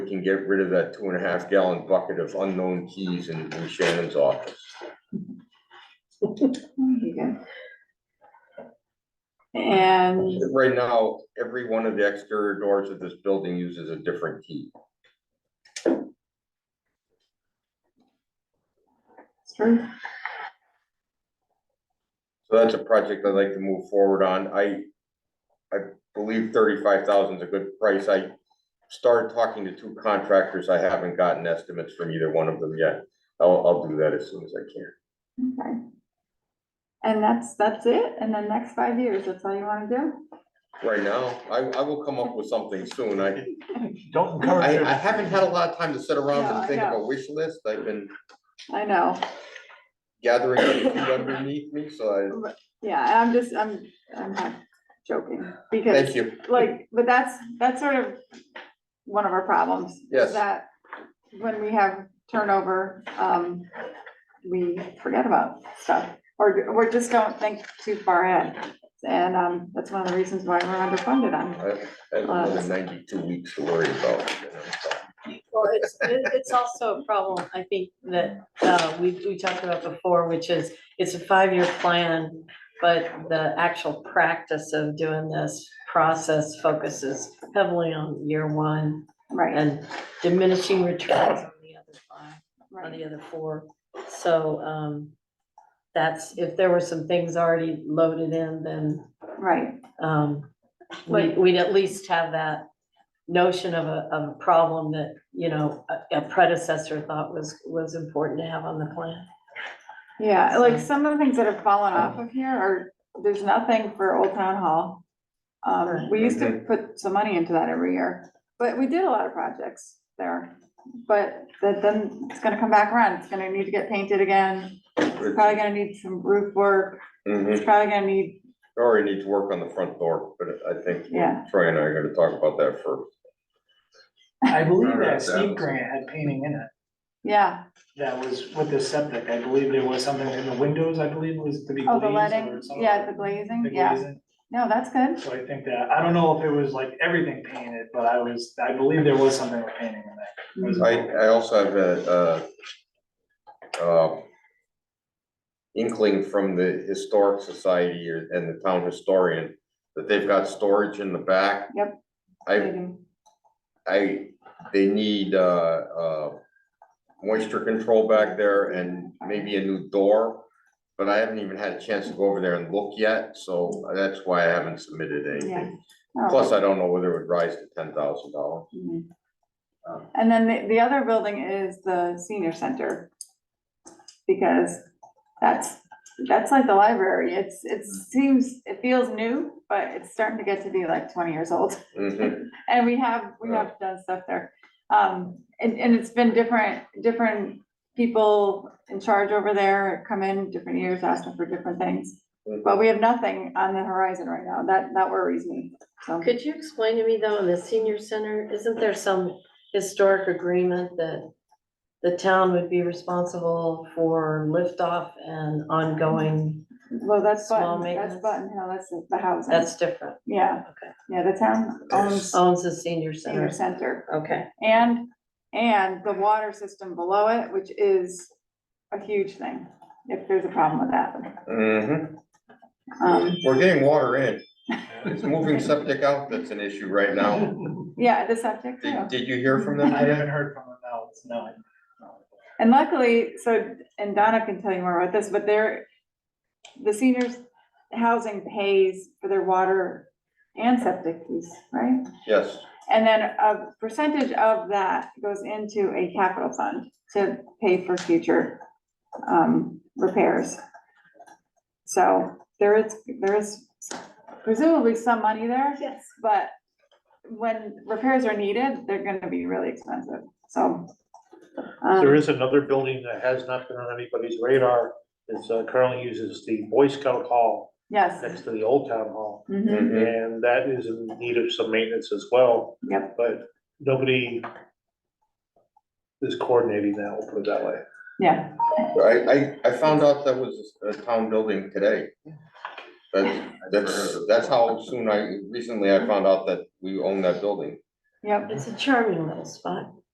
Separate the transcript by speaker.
Speaker 1: can get rid of that two and a half gallon bucket of unknown keys in in Shannon's office.
Speaker 2: And
Speaker 1: Right now, every one of the exterior doors of this building uses a different key. So that's a project I'd like to move forward on. I, I believe thirty-five thousand is a good price. I started talking to two contractors. I haven't gotten estimates from either one of them yet. I'll, I'll do that as soon as I can.
Speaker 2: Okay. And that's, that's it, and then next five years, that's all you wanna do?
Speaker 1: Right now, I, I will come up with something soon. I,
Speaker 3: Don't encourage
Speaker 1: I,
Speaker 3: her.
Speaker 1: I haven't had a lot of time to sit around
Speaker 2: No, I
Speaker 1: and think of a
Speaker 2: know.
Speaker 1: wish list. I've been
Speaker 2: I know,
Speaker 1: gathering it underneath me, so
Speaker 2: yeah, and I'm just, I'm, I'm not joking,
Speaker 1: I,
Speaker 2: because
Speaker 1: thank you.
Speaker 2: like, but that's, that's sort of one of our problems. is
Speaker 1: Yes.
Speaker 2: That when we have turnover, um, we forget about stuff, or, or just don't think too far ahead. And, um, that's one of the reasons why we're underfunded on,
Speaker 1: I I have another ninety-two weeks to worry about. you know, so.
Speaker 4: Well, it's, it- it's also a problem, I think, that, uh, we, we talked about before, which is, it's a five-year plan, but the actual practice of doing this process focuses heavily on year one
Speaker 2: right,
Speaker 4: and diminishing returns on the other five, on
Speaker 2: right,
Speaker 4: the other four. So, um, that's, if there were some things already loaded in, then,
Speaker 2: right,
Speaker 4: um, we,
Speaker 2: Like-
Speaker 4: we'd at least have that notion of a, of a problem that, you know, a- a predecessor thought was, was important to have on the plan.
Speaker 2: yeah, like, some of the things that have fallen off of here are, there's nothing for Old Town Hall. Um, we used to put some money into that every year, but we did a lot of projects there. But that, then it's gonna come back around, it's gonna need to get painted again, it's probably gonna need some roof work,
Speaker 1: Mhm.
Speaker 2: it's probably gonna need,
Speaker 1: Or need to work on the front door, but I think
Speaker 2: yeah,
Speaker 1: Troy and I are gonna talk about that first.
Speaker 3: I believe
Speaker 5: Remember
Speaker 3: that
Speaker 5: that
Speaker 3: Steve
Speaker 5: was-
Speaker 3: Grant had painting in it.
Speaker 2: yeah,
Speaker 3: That was with the septic. I believe there was something in the windows, I believe was to be
Speaker 2: oh,
Speaker 3: glazed
Speaker 2: the
Speaker 3: or
Speaker 2: letting,
Speaker 3: something.
Speaker 2: yeah, the glazing,
Speaker 3: The
Speaker 2: yeah,
Speaker 3: glazing.
Speaker 2: no, that's good,
Speaker 3: So I think that, I don't know if it was like everything painted, but I was, I believe there was something with painting in there. It was-
Speaker 1: I, I also have a, uh, uh, inkling from the Historic Society or- and the town historian that they've got storage in the back.
Speaker 2: Yep.
Speaker 1: I, I, they need, uh, uh, moisture control back there and maybe a new door. But I haven't even had a chance to go over there and look yet, so that's why I haven't submitted
Speaker 2: yeah.
Speaker 1: anything.
Speaker 2: Oh.
Speaker 1: Plus, I don't know whether it would rise to ten thousand dollars.
Speaker 2: Mhm.
Speaker 1: Um,
Speaker 2: And then the, the other building is the senior center. Because that's, that's like the library, it's, it seems, it feels new, but it's starting to get to be like twenty years old.
Speaker 1: Mm-hmm.
Speaker 2: And we have, we have done stuff there. Um, and, and it's been different, different people in charge over there come in different years, asking for different things.
Speaker 1: Mhm.
Speaker 2: But we have nothing on the horizon right now, that, that worries me, so.
Speaker 4: Could you explain to me though, in the senior center, isn't there some historic agreement that the town would be responsible for liftoff and ongoing,
Speaker 2: Well, that's
Speaker 4: Small
Speaker 2: Button, that's
Speaker 4: maintenance.
Speaker 2: Button Hill, that's the housing.
Speaker 4: that's different,
Speaker 2: Yeah,
Speaker 4: okay.
Speaker 2: yeah, the town owns
Speaker 4: Owns the senior
Speaker 2: senior
Speaker 4: center,
Speaker 2: center
Speaker 4: okay.
Speaker 2: and, and the water system below it, which is a huge thing, if there's a problem with that.
Speaker 1: hmm
Speaker 2: Um,
Speaker 1: We're getting water in. It's moving septic out that's an issue right now.
Speaker 2: yeah, the septic too.
Speaker 1: Did, did you hear from
Speaker 3: I
Speaker 1: them today?
Speaker 3: haven't heard from him now, it's no.
Speaker 2: And luckily, so, and Donna can tell you more about this, but they're, the seniors housing pays for their water and septic fees, right?
Speaker 1: Yes,
Speaker 2: And then a percentage of that goes into a capital fund to pay for future um, repairs. So there is, there is presumably some money there,
Speaker 4: Yes.
Speaker 2: but when repairs are needed, they're gonna be really expensive, so. um,
Speaker 6: There is another building that has not been on anybody's radar, it's uh, currently uses the Boy Scout Hall
Speaker 2: Yes.
Speaker 6: next to the Old Town Hall.
Speaker 2: Mhm.
Speaker 1: Mhm.
Speaker 6: And that is in need of some maintenance as well.
Speaker 2: Yep.
Speaker 6: But nobody is coordinating that, we'll put it that way.
Speaker 2: Yeah,
Speaker 1: I, I, I found out that was a town building today. That's, that's, that's how soon I, recently I found out that we own that building.
Speaker 2: Yep.
Speaker 4: It's a charming little spot.